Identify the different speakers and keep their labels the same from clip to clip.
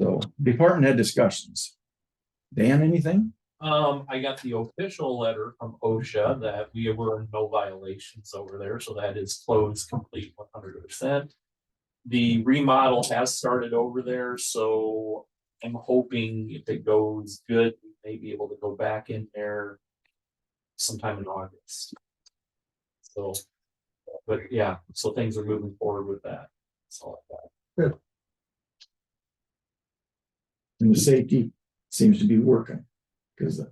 Speaker 1: So department head discussions. Dan, anything?
Speaker 2: Um, I got the official letter from OSHA that we were in no violations over there, so that is closed complete one hundred percent. The remodel has started over there, so I'm hoping if it goes good, we may be able to go back in there sometime in August. So, but yeah, so things are moving forward with that. That's all I got.
Speaker 1: And the safety seems to be working because the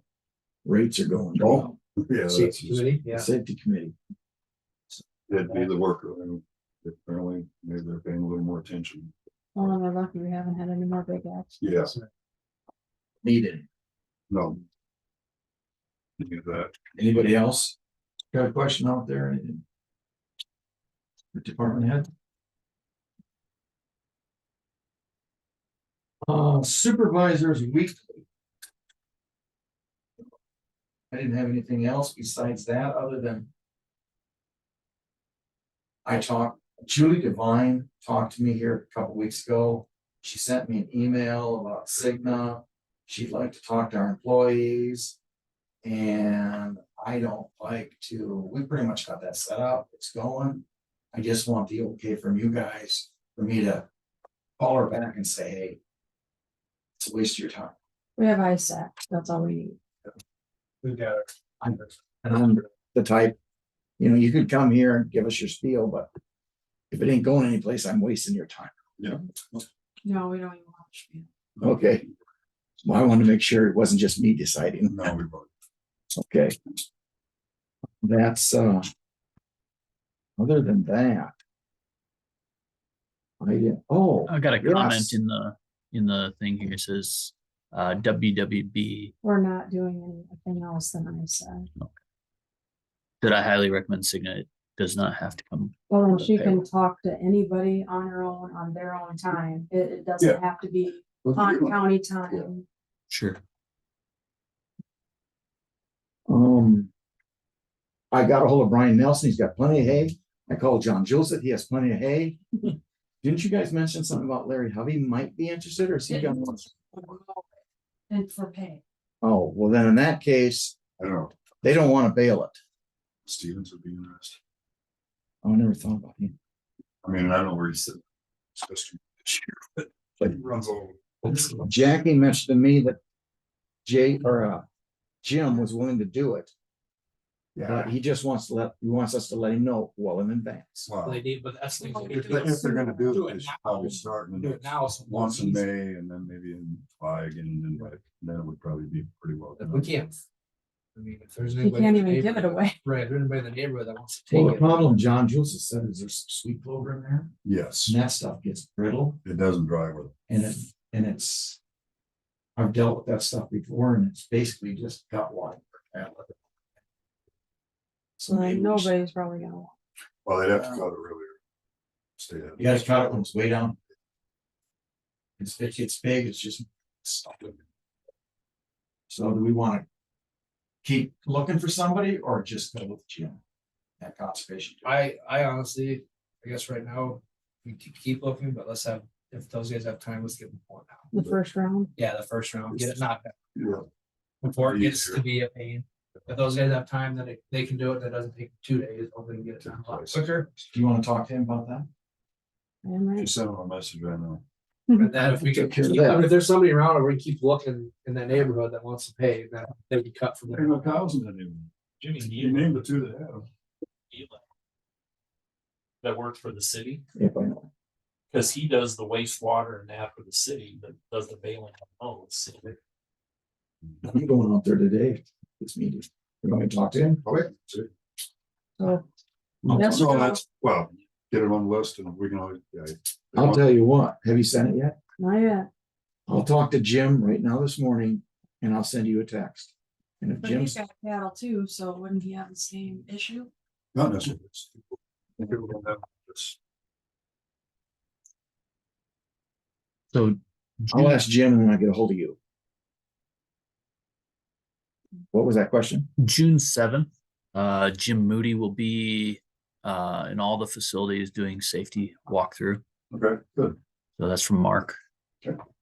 Speaker 1: rates are going down.
Speaker 3: Yeah, that's just-
Speaker 1: The Safety committee.
Speaker 3: that'd be the worker. and Apparently, maybe they're paying a little more attention.
Speaker 4: Well, and we're lucky we haven't had any more big accidents.
Speaker 3: Yeah,
Speaker 1: needed.
Speaker 3: no. Do that.
Speaker 1: Anybody else? Got a question out there? Anything? The department head? Uh, supervisors weekly. I didn't have anything else besides that, other than. I talked, Julie Devine talked to me here a couple weeks ago. She sent me an email about Cigna. She'd like to talk to our employees. And I don't like to, we pretty much got that set up, it's going. I just want the okay from you guys, for me to call her back and say, hey. It's a waste of your time.
Speaker 4: We have ISAC, that's all we need.
Speaker 1: I'm- And I'm the type, you know, you could come here and give us your spiel, but if it ain't going anyplace, I'm wasting your time.
Speaker 4: No, we don't even watch.
Speaker 1: Okay. Well, I wanted to make sure it wasn't just me deciding.
Speaker 3: No, we vote.
Speaker 1: Okay. That's, uh. Other than that. I didn't, oh,
Speaker 5: I got a
Speaker 1: Yes.
Speaker 5: comment in the, in the thing here, it says, uh, WWB,
Speaker 4: We're not doing anything else than ISAC.
Speaker 5: that I highly recommend Cigna, it does not have to come.
Speaker 4: Well, and she can talk to anybody on her own, on their own time. It, it doesn't have to be on county time.
Speaker 5: Sure.
Speaker 1: um. I got a hold of Brian Nelson, he's got plenty of hay. I called John Joseph, he has plenty of hay. Didn't you guys mention something about Larry Hovey might be interested or is he gonna?
Speaker 4: And for pay.
Speaker 1: Oh, well, then in that case,
Speaker 3: I don't know.
Speaker 1: they don't wanna bail it. Oh,
Speaker 3: Stevens would be interested.
Speaker 1: I never thought about him.
Speaker 3: I mean, I don't know where he's sitting. especially this year, but-
Speaker 1: But-
Speaker 3: He runs all.
Speaker 1: Jackie mentioned to me that Jay or uh Jim was willing to do it. But
Speaker 3: Yeah.
Speaker 1: he just wants to let, he wants us to let him know well in advance.
Speaker 3: Wow.
Speaker 2: They need, but that's. the
Speaker 3: If they- if they're gonna do it, they should probably start in
Speaker 2: Do
Speaker 3: the
Speaker 2: it now. so we'll
Speaker 3: once in
Speaker 2: ease-
Speaker 3: May and then maybe in July again, and then, like, then it would probably be pretty well.
Speaker 6: If
Speaker 3: done.
Speaker 6: we can't. I mean, if there's
Speaker 4: You
Speaker 6: anybody. in
Speaker 4: can't
Speaker 6: the
Speaker 4: even give it
Speaker 6: neighborhood-
Speaker 4: away.
Speaker 6: Right, if anybody in the neighborhood that wants to
Speaker 1: Well,
Speaker 6: take
Speaker 1: the
Speaker 6: it.
Speaker 1: problem John Joseph said is there's some sweet clover in there,
Speaker 3: Yes,
Speaker 1: and that stuff gets brittle
Speaker 3: it doesn't dry with.
Speaker 1: and it, and it's. I've dealt with that stuff before and it's basically just gut water. So
Speaker 4: So
Speaker 1: maybe we should-
Speaker 4: nobody's probably gonna. watch.
Speaker 3: Well, they'd have to cut it earlier. Stay. out.
Speaker 1: you guys caught it when it's way down. It's, it gets big, it's just stuff. So do we wanna? Keep looking for somebody or just go with Jim? That conservation.
Speaker 6: I, I honestly, I guess right now, we could keep looking, but let's have, if those guys have time, let's give them one now.
Speaker 4: The first round,
Speaker 6: Yeah, the first round, get it knocked out
Speaker 3: Yeah,
Speaker 6: before it gets to be a pain. If those guys have time, then it- they can do it. That doesn't take two days. Hopefully, we can get it done a lot quicker.
Speaker 1: Do you wanna talk to him about that?
Speaker 4: I am right.
Speaker 3: just send them a message right now.
Speaker 6: And then if we can,
Speaker 1: Take care of
Speaker 6: keep- I mean,
Speaker 1: that.
Speaker 6: if there's somebody around or we keep looking in that neighborhood that wants to pay, then they can cut from
Speaker 3: There's
Speaker 6: there.
Speaker 3: no cows in that neighborhood.
Speaker 2: Jimmy, do
Speaker 3: You named the two that have.
Speaker 2: Eli. That works for the city,
Speaker 1: If I know.
Speaker 2: because he does the wastewater and that for the city, but does the bailing on those.
Speaker 1: I'm going out there today, this meeting. You want me to talk to him?
Speaker 3: Okay. see.
Speaker 4: So
Speaker 1: I'll-
Speaker 4: Yes.
Speaker 3: So that's, well, get it on the list and we can, always- yeah.
Speaker 1: I'll tell you what, have you sent it yet?
Speaker 4: not yet.
Speaker 1: I'll talk to Jim right now this morning and I'll send you a text. And if
Speaker 4: But he's
Speaker 1: Jim's,
Speaker 4: got cattle too, so wouldn't he have the same issue?
Speaker 3: Not necessarily. it's- people don't have this.
Speaker 5: So.
Speaker 1: I'll ask Jim and then Oh, I get a hold of you. What was that question?
Speaker 5: June seventh, uh, Jim Moody will be, uh, in all the facilities doing safety walkthrough.
Speaker 3: Okay, good.
Speaker 5: So that's from Mark.